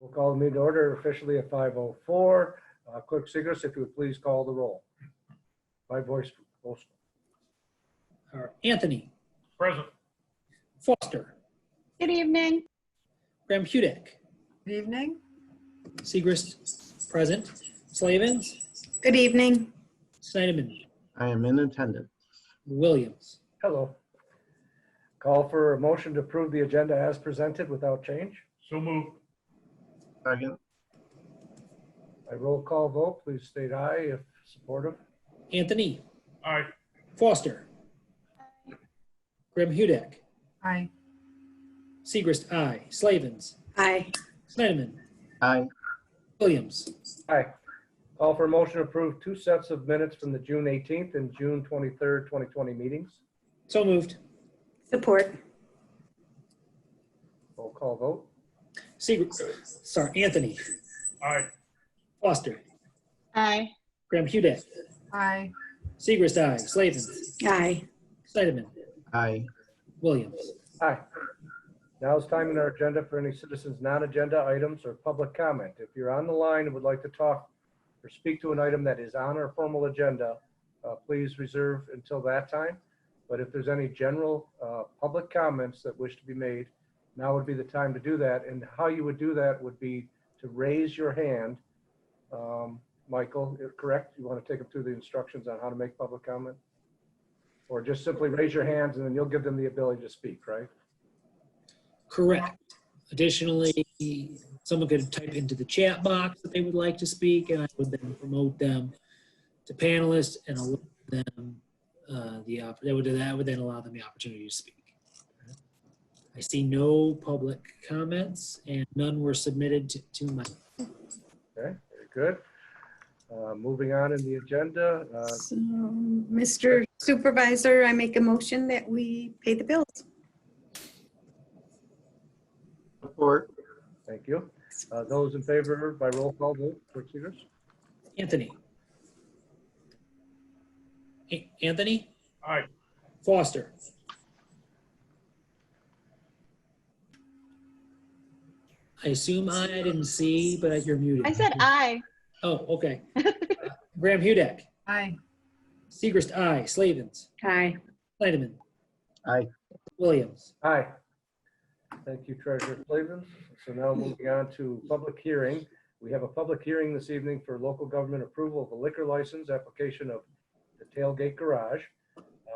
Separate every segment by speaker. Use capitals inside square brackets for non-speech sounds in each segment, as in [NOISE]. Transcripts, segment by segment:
Speaker 1: We'll call the meeting to order officially at 5:04. Uh, Clerk Segris, if you would please call the roll. By voice, vote.
Speaker 2: are Anthony
Speaker 3: Present.
Speaker 2: Foster,
Speaker 4: Good evening.
Speaker 2: Graham Hudek,
Speaker 5: Good evening.
Speaker 2: Segrist present, Slavens,
Speaker 5: Good evening.
Speaker 2: Snyderman,
Speaker 6: I am in attendance.
Speaker 2: Williams.
Speaker 1: hello. Call for a motion to approve the agenda as presented without change.
Speaker 3: So moved.
Speaker 6: Second,
Speaker 1: By roll call vote, please state aye if supportive.
Speaker 2: Anthony
Speaker 3: Aye.
Speaker 2: Foster, Graham Hudek,
Speaker 5: Aye.
Speaker 2: Segrist, I, Slavens,
Speaker 5: Aye.
Speaker 2: Snyderman,
Speaker 6: aye.
Speaker 2: Williams.
Speaker 1: Aye. Call for a motion to approve two sets of minutes from the June 18th and June 23rd, 2020 meetings.
Speaker 2: So moved.
Speaker 5: Support.
Speaker 1: Roll call vote.
Speaker 2: Segrist, sorry, Anthony
Speaker 3: Aye.
Speaker 2: Foster,
Speaker 4: Aye.
Speaker 2: Graham Hudek,
Speaker 5: Aye.
Speaker 2: Segrist, I, Slavens,
Speaker 5: Aye.
Speaker 2: Snyderman,
Speaker 6: Aye.
Speaker 2: Williams.
Speaker 1: Aye. Now is time in our agenda for any citizens' non-agenda items or public comment. If you're on the line and would like to talk or speak to an item that is on our formal agenda, uh, please reserve until that time. But if there's any general uh, public comments that wish to be made, now would be the time to do that. And how you would do that would be to raise your hand. Um, Michael, you're correct? You want to take them through the instructions on how to make public comment? Or just simply raise your hands and then you'll give them the ability to speak, right?
Speaker 2: Correct. Additionally, someone could type into the chat box that they would like to speak, and I would then promote them to panelists and allow them uh, the opp- that would that would then allow them the opportunity to speak. I see no public comments, and none were submitted to, to my.
Speaker 1: Okay, very good. Uh, Moving on in the agenda, uh,
Speaker 5: So, Mr. Supervisor, I make a motion that we pay the bills.
Speaker 6: Support,
Speaker 1: thank you. Uh, Those in favor by roll call vote, Clerk Seegers?
Speaker 2: Anthony. A- Anthony
Speaker 3: Aye.
Speaker 2: Foster. I assume I didn't see, but you're muted.
Speaker 4: I said aye.
Speaker 2: Oh,
Speaker 4: [LAUGHS]
Speaker 2: okay. Graham Hudek,
Speaker 5: Aye.
Speaker 2: Segrist, I, Slavens,
Speaker 5: Aye.
Speaker 2: Snyderman.
Speaker 6: Aye.
Speaker 2: Williams.
Speaker 1: Aye. Thank you, Treasurer Slavens. So now moving on to public hearing. We have a public hearing this evening for local government approval of a liquor license application of the Tailgate Garage.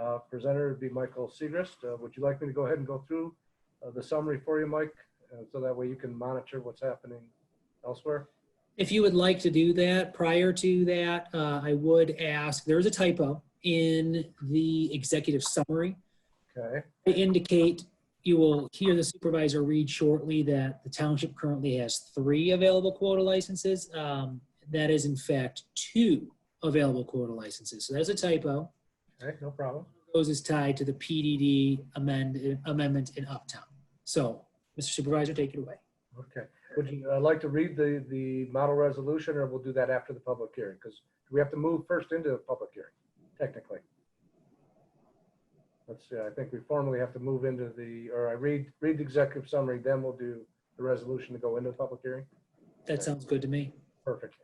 Speaker 1: Uh, Presenter would be Michael Segrist. Uh, Would you like me to go ahead and go through uh, the summary for you, Mike? Uh, So that way you can monitor what's happening elsewhere?
Speaker 2: If you would like to do that, prior to that, uh, I would ask, there is a typo in the executive summary.
Speaker 1: Okay,
Speaker 2: I indicate, you will hear the supervisor read shortly that the township currently has three available quota licenses. Um, That is in fact two available quota licenses. So that's a typo.
Speaker 1: okay, no problem.
Speaker 2: Those is tied to the PDD amend, amendment in Uptown. So, Mr. Supervisor, take it away.
Speaker 1: Okay, would you uh, like to read the, the model resolution, or we'll do that after the public hearing? Because we have to move first into the public hearing, technically. Let's see, I think we formally have to move into the, or I read, read the executive summary, then we'll do the resolution to go into the public hearing.
Speaker 2: That sounds good to me.
Speaker 1: Perfect.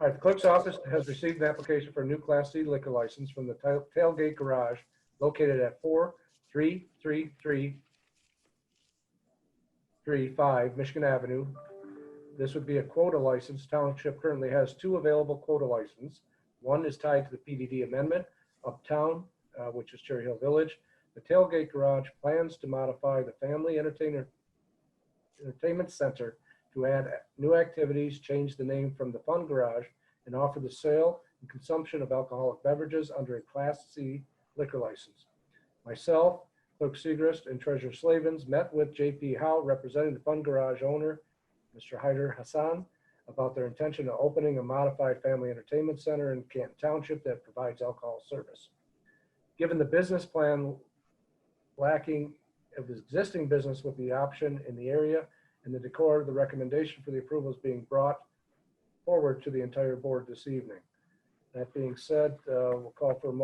Speaker 1: All right, the clerk's office has received an application for a new Class C liquor license from the Tail- Tailgate Garage located at 4333 35 Michigan Avenue. This would be a quota license. Township currently has two available quota licenses. One is tied to the PDD amendment uptown, uh, which is Cherry Hill Village. The Tailgate Garage plans to modify the Family Entertainer Entertainment Center to add new activities, change the name from the Fun Garage, and offer the sale and consumption of alcoholic beverages under a Class C liquor license. Myself, Clerk Segrist, and Treasurer Slavens met with JP Howe, representing the Fun Garage owner, Mr. Hyder Hassan, about their intention of opening a modified family entertainment center in Canton Township that provides alcohol service. Given the business plan lacking of his existing business with the option in the area, and the decor, the recommendation for the approval is being brought forward to the entire board this evening. That being said, uh, we'll call for a motion